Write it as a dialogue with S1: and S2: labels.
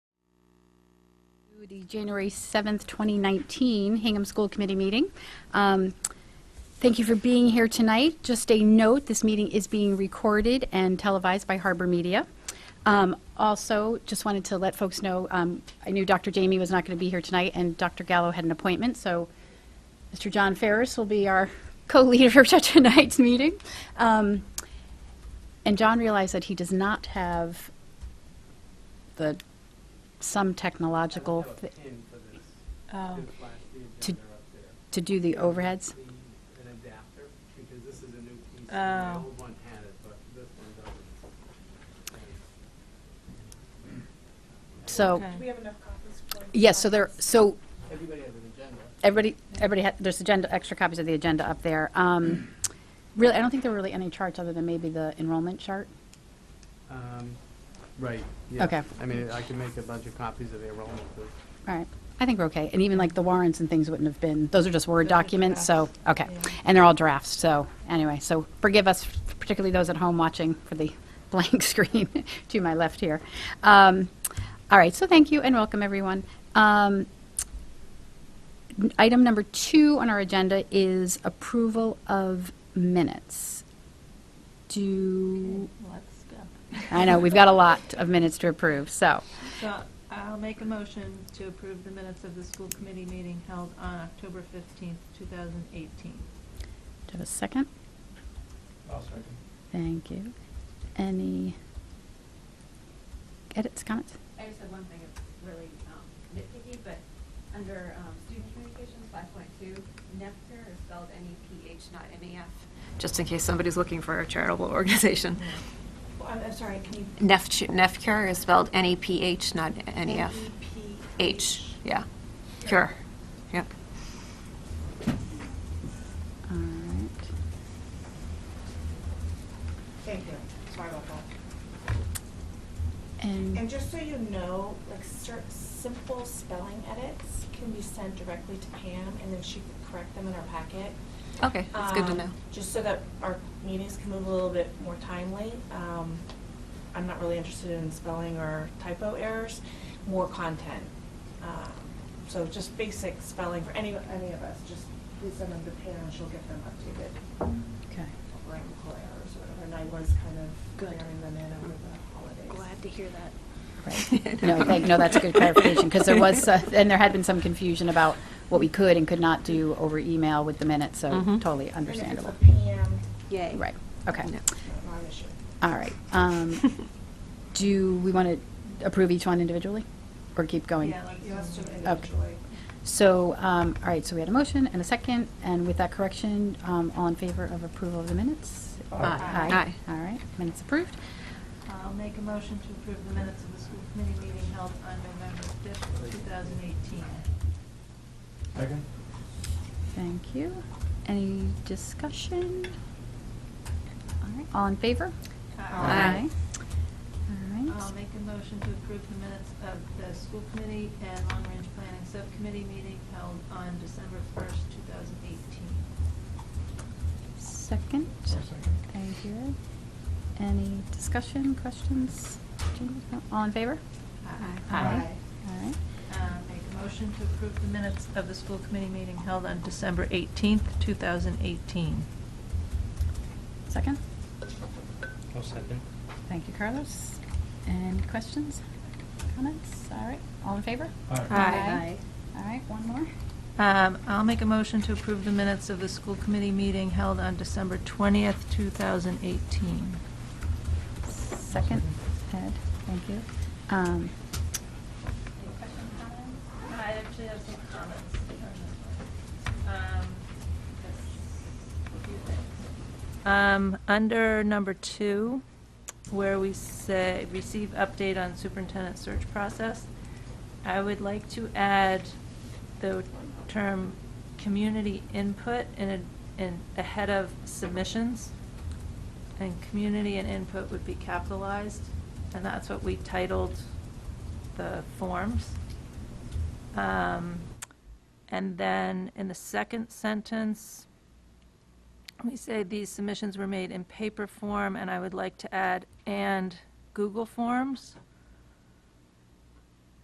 S1: to the January 7th, 2019 Hingham School Committee meeting. Um, Thank you for being here tonight. Just a note, this meeting is being recorded and televised by Harbor Media. Um, Also, just wanted to let folks know, um, I knew Dr. Jamie was not going to be here tonight, and Dr. Gallo had an appointment, so Mr. John Ferris will be our co-leader to tonight's meeting. Um, And John realized that he does not have the, some technological,
S2: I
S1: thi-
S2: would have a pin for this.
S1: Oh.
S2: Didn't flash the
S1: To-
S2: agenda up there.
S1: to do the overheads.
S2: We need An adapter, because this is a new piece. The
S3: Oh.
S2: old one had it, but this one doesn't.
S1: So,
S3: Okay.
S4: We have enough copies for.
S1: yes, so there, so
S2: Everybody has an agenda.
S1: Everybody, everybody, had- there's agenda, extra copies of the agenda up there. Um, Really, I don't think there were really any charts other than maybe the enrollment chart.
S2: Um, Right, yeah.
S1: Okay.
S2: I mean, I could make a bunch of copies of the enrollment, but
S1: All right, I think we're okay. And even like the warrants and things wouldn't have been, those are just Word documents, so, okay. And they're all drafts, so, anyway, so forgive us, particularly those at home watching for the blank screen to my left here. Um, All right, so thank you and welcome, everyone. Um, n- Item number two on our agenda is approval of minutes. Do,
S3: Let's go.
S1: I know, we've got a lot of minutes to approve, so,
S3: So I'll make a motion to approve the minutes of the school committee meeting held on October 15th, 2018.
S1: do you have a second?
S2: I'll second.
S1: Thank you. Any edits, comments?
S5: I just had one thing that's really um, nitpicky, but under um, student communications, five point two, NEPCR is spelled N-E-P-H, not M-A-F. Just in case somebody's looking for a charitable organization.
S4: Well, I'm, I'm sorry, can you?
S5: NEPCR NEPCR is spelled N-E-P-H, not N-E-F.
S4: E NEP.
S5: E, H, yeah. Cure, yep.
S1: All right.
S4: Thank you, sorry about that. And
S1: And,
S4: just so you know, like, cer- simple spelling edits can be sent directly to Pam, and then she can correct them in her packet.
S5: Okay, that's good to
S4: Um,
S5: know.
S4: Just so that our meetings can move a little bit more timely. Um, I'm not really interested in spelling or typo errors, more content. Um, So just basic spelling for any, any of us, just please send them to Pam, and she'll get them updated.
S1: okay.
S4: grammatical errors or whatever, and I was kind of clearing them in over the holidays.
S6: Glad to hear that.
S1: Right. No, thank, no, that's a good clarification, because there was, uh, and there had been some confusion about what we could and could not do over email with the minutes, so
S5: Mhm.
S1: totally
S4: And if it's
S1: understandable.
S4: a PM,
S6: Yay.
S1: Right, okay.
S5: Yeah.
S4: not an issue.
S1: All right. Um, Do we want to approve each one individually, or keep going?
S3: Yeah, like-
S4: You have to
S1: Okay.
S4: individually.
S1: So, um, all right, so we had a motion and a second, and with that correction, um, all in favor of approval of the minutes?
S5: Aye.
S1: All right, minutes approved.
S3: I'll make a motion to approve the minutes of the school committee meeting held on November 5th, 2018.
S2: Second?
S1: Thank you. Any discussion? All right, all in favor?
S5: Aye.
S1: All
S3: I'll
S1: right.
S3: make a motion to approve the minutes of the school committee and long range planning subcommittee meeting held on December 1st, 2018.
S1: Second. Thank you. Any discussion, questions? Changes? No? All in favor?
S4: Aye.
S1: All right.
S3: Uh, Make a motion to approve the minutes of the school committee meeting held on December 18th, 2018.
S1: Second.
S2: I'll second.
S1: Thank you, Carlos. Any questions, comments? All right, all in favor?
S5: Aye.
S1: All right, one more.
S3: Um, I'll make a motion to approve the minutes of the school committee meeting held on December 20th, 2018.
S1: Second, Ed, thank you. Um,
S7: Any questions, comments? I actually have some comments on this one. Um, that's a few things.
S3: Um, Under number two, where we say, receive update on superintendent search process, I would like to add the term community input in, a- in, ahead of submissions. And community and input would be capitalized, and that's what we titled the forms. Um, And then in the second sentence, we say these submissions were made in paper form, and I would like to add, and Google Forms.